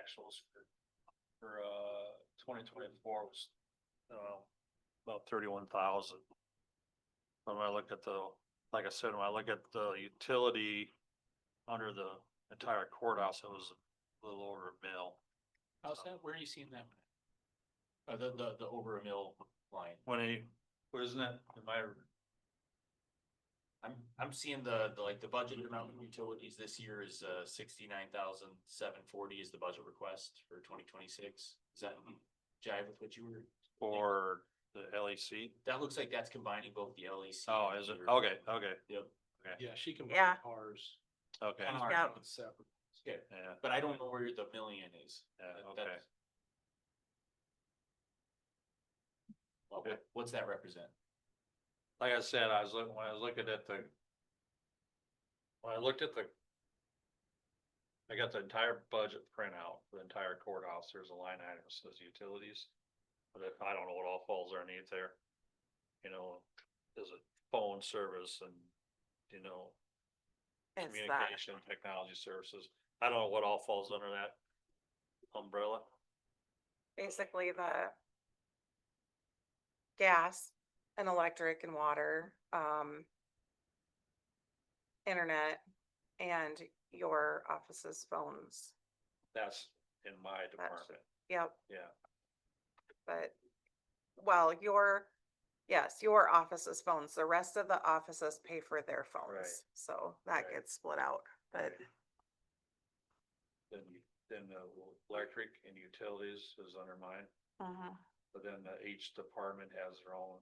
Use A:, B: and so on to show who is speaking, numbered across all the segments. A: actuals for, for, uh, twenty twenty-four was, uh, about thirty-one thousand. When I look at the, like I said, when I look at the utility under the entire courthouse, it was a little over a mil.
B: How's that? Where are you seeing that? Uh, the, the, the over a mill line.
A: When he, wasn't it, am I,
B: I'm, I'm seeing the, the, like, the budget amount of utilities this year is, uh, sixty-nine thousand, seven forty is the budget request for twenty twenty-six. Is that jive with what you were?
A: or the E LEC?
B: That looks like that's combining both the LEC.
A: Oh,
B: and
A: is it?
B: your-
A: Okay, okay,
B: Yep.
C: Yeah, she can.
D: Yeah.
C: Ours.
A: okay,
B: Kinda hard.
D: Yeah.
C: It's separate.
B: Okay,
A: yeah,
B: but I don't know where the million is.
A: yeah,
B: That-
A: okay.
B: that's- Well, what- what's that represent?
A: like I said, I was looking, when I was looking at the. When I looked at the. I got the entire budget printout, for the entire courthouse, there's a line item that says utilities. But if, I don't know what all falls underneath there. You know, is it phone service and, you know,
D: It's that,
A: communication, technology services? I don't know what all falls under that umbrella.
D: basically the gas and electric and water, um, internet and your office's phones.
A: That's in my department,
D: Yep,
A: yeah.
D: but, well, your, yes, your office's phones, the rest of the offices pay for their phones. So that
A: Right.
D: gets split out, but
A: Then, you- then uh, the electric and utilities is under mine.
D: Mhm.
A: But then the each department has their own.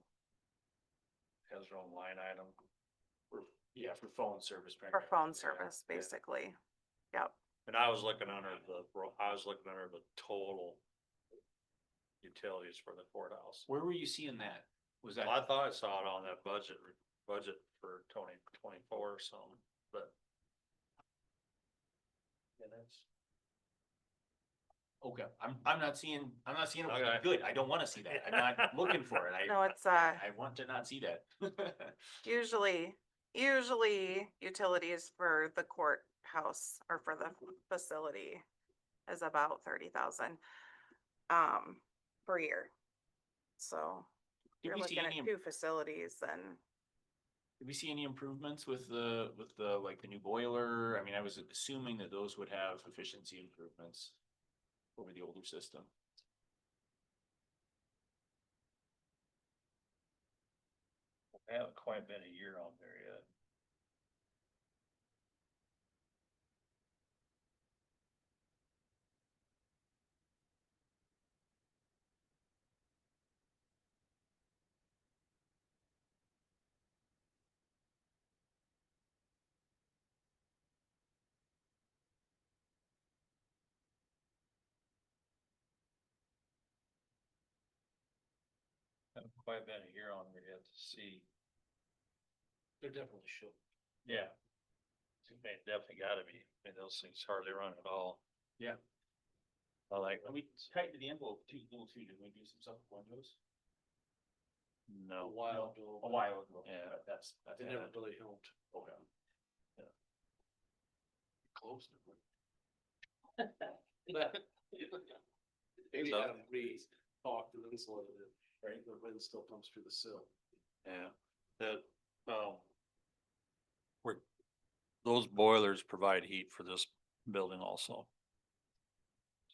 A: Has their own line item.
B: Yeah, for phone service.
D: for
B: primarily.
D: phone
B: Yeah.
D: service, basically. Yep,
A: And I was looking under the, ro- I was looking under the total. Utilities for the courthouse.
B: Where were you seeing that? Was that?
A: Well, I thought I saw it on that budget, re- budget for twenty twenty-four or something, but. Yeah, that's.
B: Okay, I'm, I'm not seeing, I'm not seeing
A: Okay.
B: it, good, I don't wanna see that, I'm not looking for it,
D: no,
B: I,
D: it's, uh.
B: I want to not see that.
D: Usually, usually utilities for the courthouse or for the facility is about thirty thousand um per year. So if
B: Did
D: you're
B: we see
D: looking at
B: any,
D: two facilities then
B: did we see any improvements with the, with the, like, the new boiler, I mean, I was assuming that those would have efficiency improvements over the older system.
A: I haven't quite been a year on there yet. Haven't quite been a year on there yet to see.
C: They're definitely short.
A: Yeah. They definitely gotta be, I mean, those things hardly run at all.
B: Yeah.
A: I like,
B: we tightened the envelope too, little too, did we do some stuff with windows?
C: A
A: no,
C: while ago.
B: A while ago,
A: Yeah.
B: but that's, that's.
C: It never really helped.
B: Okay.
C: Close. Maybe
A: So-
C: have me talk to them so that, right, the wind still comes through the sill.
A: yeah, that, um. We're, those boilers provide heat for this building also.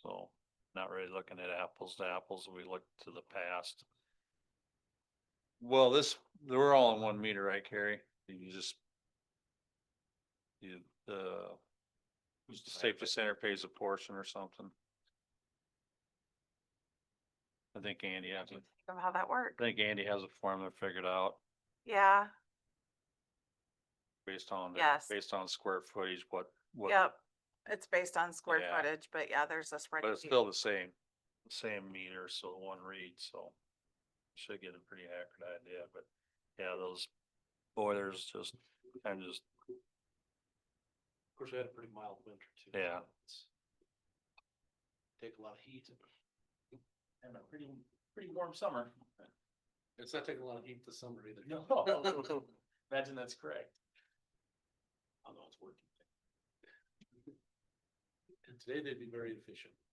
A: So, not really looking at apples to apples, we look to the past. Well, this, they're all in one meter, right, Carrie? You just. You, the safety center pays a portion or something. I think Andy has, a-
D: think of how that
A: I
D: worked.
A: think Andy has a formula figured out
D: Yeah,
A: based on, the-
D: Yes.
A: based on square footage, what, what.
D: yep. It's based on square
A: Yeah.
D: footage, but yeah, there's a spreadsheet.
A: But it's still the same, the same meter, so the one read, so. Should get a pretty accurate idea, but yeah, those boilers just, kind of just,
C: Of course, we had a pretty mild winter too.
A: Yeah.
C: It's- Take a lot of heat.
B: And a pretty, pretty warm summer.
C: It's not taking a lot of heat this summer either.
B: No. Imagine that's correct.
C: I know it's working. And today they'd be very efficient.